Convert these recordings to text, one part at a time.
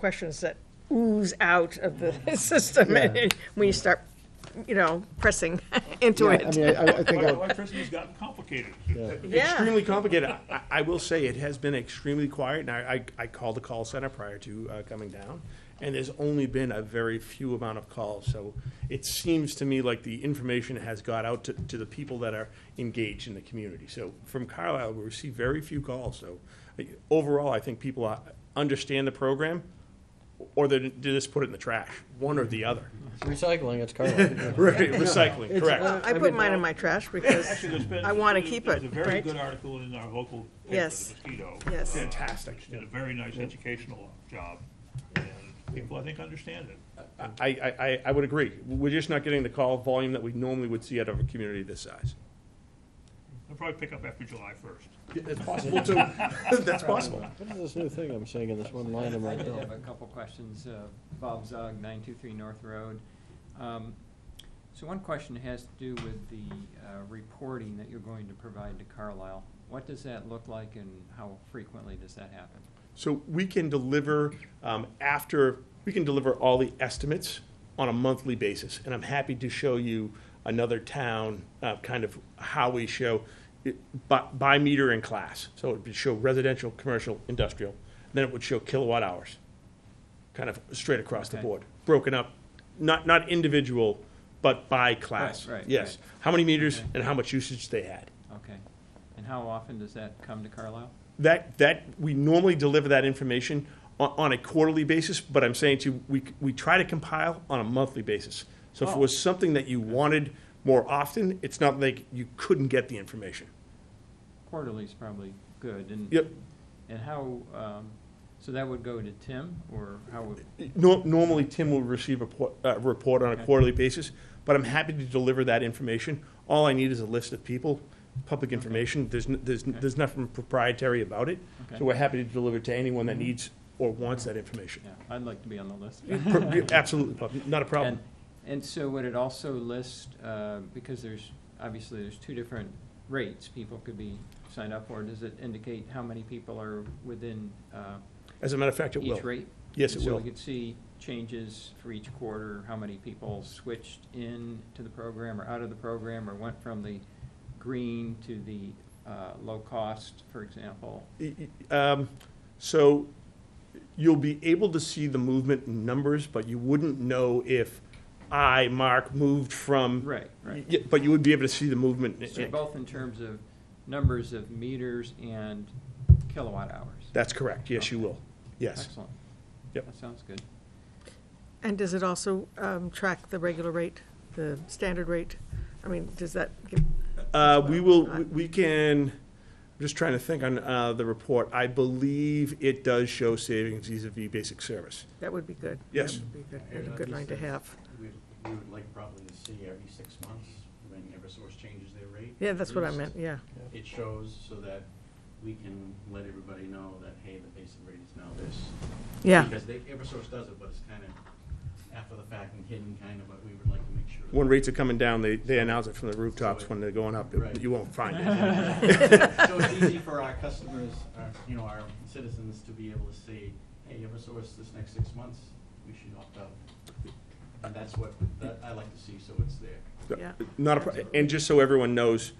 questions that ooze out of the system Yeah. when you start, you know, pressing into Yeah, I mean, I, it. I- I think, I would- Electricity's gotten complicated. Yeah. Extremely complicated. I- I, I will say it has been extremely quiet, and I, I, I called the call center prior to uh, coming down, and there's only been a very few amount of calls, so it seems to me like the information has got out to, to the people that are engaged in the community. So from Carlisle, we receive very few calls, so uh, overall, I think people uh, understand the program, or they they just put it in the trash, one or the other. Recycling, it's Carlisle. Right, Recycling, correct. I put mine in my trash because, Actually, there's been. I wanna there's- keep it, There's a very right? good article in our local paper, Yes. The Mosquito. Yes. uh, Fantastic. Did a very nice educational job, and people, I think, understand it. I, I, I- I would agree. We're just not getting the call volume that we normally would see out of a community this size. They'll probably pick up after July first. That's possible, too. That's possible. What is this new thing I'm seeing in this one line of my I did bill? have a couple questions. Uh, Bob Zog, 923 North Road. Um, So one question has to do with the uh, reporting that you're going to provide to Carlisle. What does that look like and how frequently does that happen? So we can deliver um, after, we can deliver all the estimates on a monthly basis. And I'm happy to show you another town, uh, kind of how we show it by, by meter in class. So it would show residential, commercial, industrial, then it would show kilowatt hours, kind of straight across the Okay. board, broken up, not, not individual, but by class. Right, right, Yes. right. How many meters Okay. and how much usage they had. Okay. And how often does that come to Carlisle? That, that, we normally deliver that information on, on a quarterly basis, but I'm saying to, you, we, we try to compile on a monthly basis. So if it Oh. was something that you wanted more often, it's not like you couldn't get the information. Quarterly is probably good. and- Yep. And how, um, so that would go to Tim or how would? Nor- Normally, Tim will receive a por- a report on a Okay. quarterly basis, but I'm happy to deliver that information. All I need is a list of people, public information, there's, n- there's, n- Okay. there's nothing proprietary about it. Okay. So we're happy to deliver to anyone that needs or wants that information. Yeah, I'd like to be on the list. Per- Absolutely, Bob, not a problem. And, and so would it also list, uh, because there's, obviously, there's two different rates people could be signed up for, does it indicate how many people are within uh, As a matter of fact, it will. each rate? Yes, And it So will. we could see changes for each quarter, how many people switched in to the program or out of the program, or went from the green to the uh, low cost, for example? Um, So you'll be able to see the movement in numbers, but you wouldn't know if I, Mark, moved from. Right, right. Yeah, But you would be able to see the movement. in- So both in terms of numbers of meters and kilowatt hours? That's correct, yes, you will, yes. Excellent. Yep. That sounds good. and does it also um, track the regular rate, the standard rate? I mean, does that, give- Uh, we will, we- we can, I'm just trying to think on uh, the report, I believe it does show savings vis-à-vis basic service. that would be good. Yes. That would be good- that'd be a good line to have. We we would like probably to see every six months when Eversource changes their rate. Yeah, that's what I at meant, least. yeah. It shows so that we can let everybody know that, hey, the basic rate is now this. Yeah, Because they, Eversource does it, but it's kind of after the fact and hidden kind of, but we would like to make sure. that- When rates are coming down, they, they announce it from the rooftops when they're going up, Right. you won't find it. So it's easy for our customers, our, you know, our citizens to be able to say, hey, Eversource, this next six months, we should opt out. And that's what, that I like to see, so it's there. Yeah. Uh, Not a, pro- and just so everyone knows,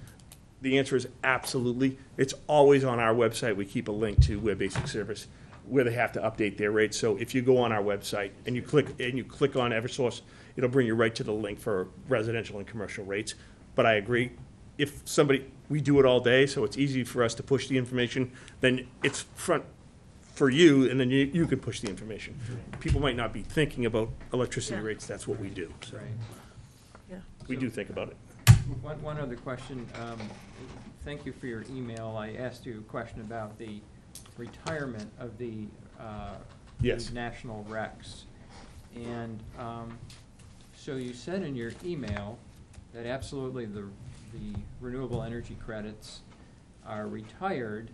the answer is absolutely. It's always on our website. We keep a link to Web Basic Service where they have to update their rates. So if you go on our website and you click, and you click on Eversource, it'll bring you right to the link for residential and commercial rates. But I agree, if somebody, we do it all day, so it's easy for us to push the information, then it's front for you, and then you, you can push the information. People might not be thinking about electricity Yeah. rates, that's what we do. So Right. yeah. we do think about it. One, one other question. Um, Thank you for your email. I asked you a question about the retirement of the uh, Yes. the national recs. And um, so you said in your email that absolutely the, the renewable energy credits are retired,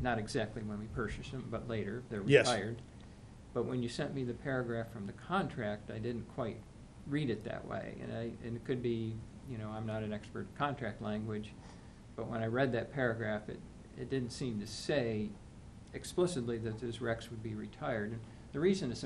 not exactly when we purchase them, but later, they're Yes. retired. But when you sent me the paragraph from the contract, I didn't quite read it that way. And I, and it could be, you know, I'm not an expert in contract language, but when I read that paragraph, it, it didn't seem to say explicitly that those recs would be retired. And The reason it's